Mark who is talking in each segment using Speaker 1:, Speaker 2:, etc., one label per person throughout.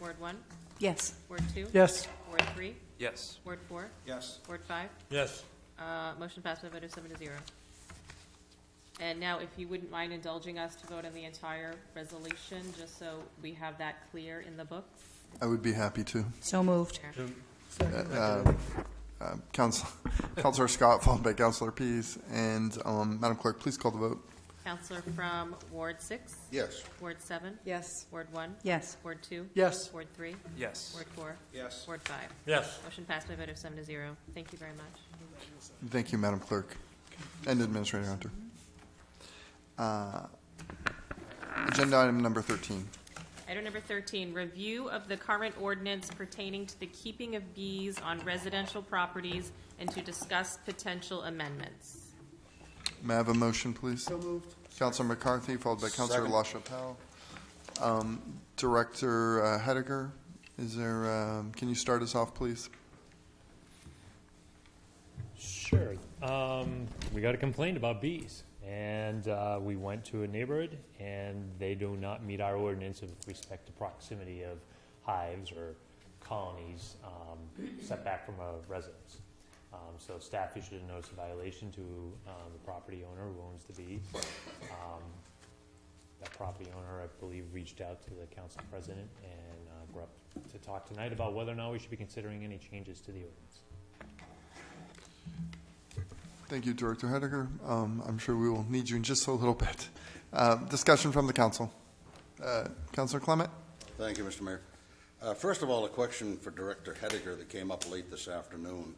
Speaker 1: Ward one,
Speaker 2: Yes.
Speaker 1: Ward two?
Speaker 3: Yes.
Speaker 1: Ward three,
Speaker 4: Yes.
Speaker 1: Ward four,
Speaker 5: Yes.
Speaker 1: Ward five?
Speaker 6: Yes.
Speaker 1: Uh, Motion passed by a vote of seven to zero. And now, if you wouldn't mind indulging us to vote on the entire resolution, just so we have that clear in the books.
Speaker 7: I would be happy to.
Speaker 2: So moved.
Speaker 7: Uh, Counsel, Counselor Scott, followed by Counselor Pease, and um, Madam Clerk, please call the vote.
Speaker 1: Counselor from Ward six,
Speaker 5: Yes.
Speaker 1: Ward seven,
Speaker 2: Yes.
Speaker 1: Ward one?
Speaker 2: Yes.
Speaker 1: Ward two?
Speaker 3: Yes.
Speaker 1: Ward three,
Speaker 4: Yes.
Speaker 1: Ward four,
Speaker 5: Yes.
Speaker 1: Ward five?
Speaker 6: Yes.
Speaker 1: Motion passed by a vote of seven to zero. Thank you very much.
Speaker 7: Thank you, Madam Clerk and Administrator Hunter. Uh, Agenda item number 13.
Speaker 1: Item number 13, review of the current ordinance pertaining to the keeping of bees on residential properties and to discuss potential amendments.
Speaker 7: May I have a motion, please? So moved. Counselor McCarthy, followed by Counselor
Speaker 5: Second.
Speaker 7: LaChapelle. Um, Director uh, Hediger, is there, um, can you start us off, please?
Speaker 8: Sure. Um, we got a complaint about bees, and uh, we went to a neighborhood, and they do not meet our ordinance with respect to proximity of hives or colonies um, setback from a residence. Um, so staff issued a notice of violation to um, the property owner who owns the bees. Um, that property owner, I believe, reached out to the council president, and uh, we're up to talk tonight about whether or not we should be considering any changes to the ordinance.
Speaker 7: Thank you, Director Hediger. Um, I'm sure we will need you in just a little bit. Uh, Discussion from the council. Uh, Counselor Clement?
Speaker 5: Thank you, Mr. Mayor. Uh, First of all, a question for Director Hediger that came up late this afternoon.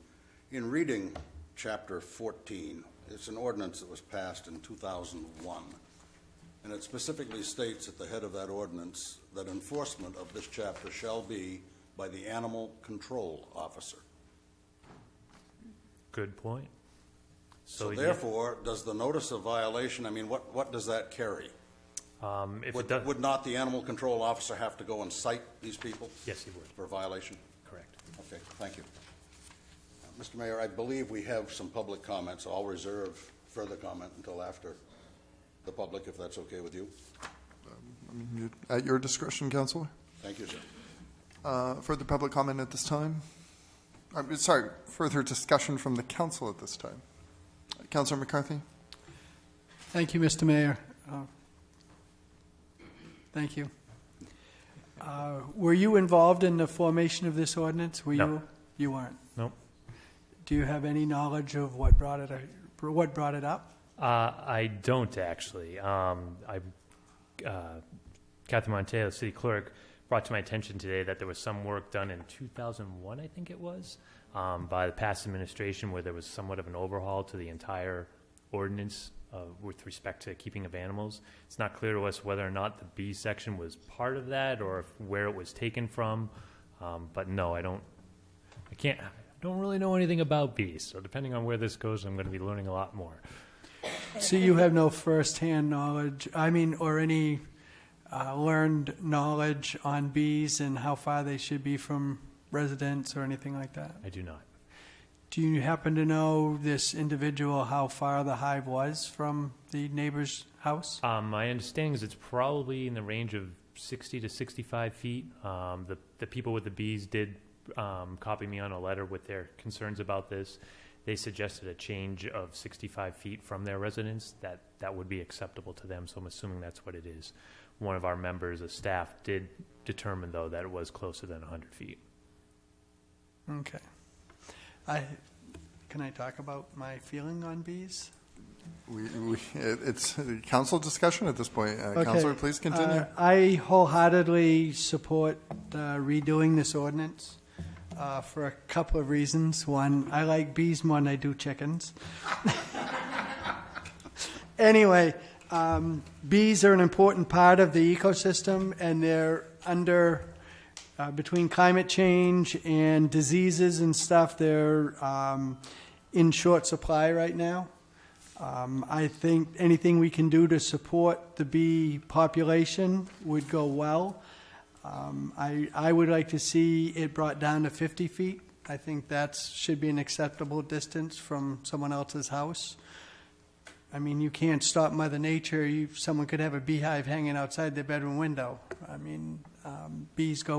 Speaker 5: In reading Chapter 14, it's an ordinance that was passed in 2001, and it specifically states at the head of that ordinance that enforcement of this chapter shall be by the animal control officer.
Speaker 8: Good point.
Speaker 5: So
Speaker 8: yeah,
Speaker 5: therefore, does the notice of violation, I mean, what, what does that carry?
Speaker 8: um, if it
Speaker 5: Would,
Speaker 8: does,
Speaker 5: would not the animal control officer have to go and cite these people?
Speaker 8: Yes, he would.
Speaker 5: For violation?
Speaker 8: correct.
Speaker 5: Okay, thank you. Uh, Mr. Mayor, I believe we have some public comments. I'll reserve further comment until after the public, if that's okay with you.
Speaker 7: You- At your discretion, Counselor.
Speaker 5: Thank you, sir.
Speaker 7: Uh, Further public comment at this time? I'm Sorry, further discussion from the council at this time. Counselor McCarthy?
Speaker 3: Thank you, Mr. Mayor. Uh, Thank you. Uh, Were you involved in the formation of this ordinance? Were
Speaker 8: No.
Speaker 3: you? You weren't.
Speaker 8: Nope.
Speaker 3: Do you have any knowledge of what brought it, what brought it up?
Speaker 8: Uh, I don't actually. Um, I, uh, Kathy Monteo, city clerk, brought to my attention today that there was some work done in 2001, I think it was, um, by the past administration where there was somewhat of an overhaul to the entire ordinance uh, with respect to keeping of animals. It's not clear to us whether or not the B section was part of that or if, where it was taken from. Um, but no, I don't. I can't. I don't really know anything about bees. So depending on where this goes, I'm going to be learning a lot more.
Speaker 3: So you have no firsthand knowledge, I mean, or any uh, learned knowledge on bees and how far they should be from residents or anything like that?
Speaker 8: I do not.
Speaker 3: Do you happen to know this individual how far the hive was from the neighbor's house?
Speaker 8: Um, my understanding is it's probably in the range of 60 to 65 feet. Um, the, the people with the bees did um, copy me on a letter with their concerns about this. They suggested a change of 65 feet from their residence. That that would be acceptable to them. So I'm assuming that's what it is. One of our members of staff did determine though that it was closer than 100 feet.
Speaker 3: Okay. I can I talk about my feeling on bees?
Speaker 7: We, we, it- it's a council discussion at this point. Uh, Counselor,
Speaker 3: Okay.
Speaker 7: please continue.
Speaker 3: Uh, I wholeheartedly support uh, redoing this ordinance uh, for a couple of reasons. One, I like bees more than I do chickens. anyway, um, bees are an important part of the ecosystem, and they're under uh, between climate change and diseases and stuff. They're um, in short supply right now. Um, I think anything we can do to support the bee population would go well. Um, I, I would like to see it brought down to 50 feet. I think that should be an acceptable distance from someone else's house. I mean, you can't stop Mother Nature. You, someone could have a beehive hanging outside their bedroom window. I mean, um, bees go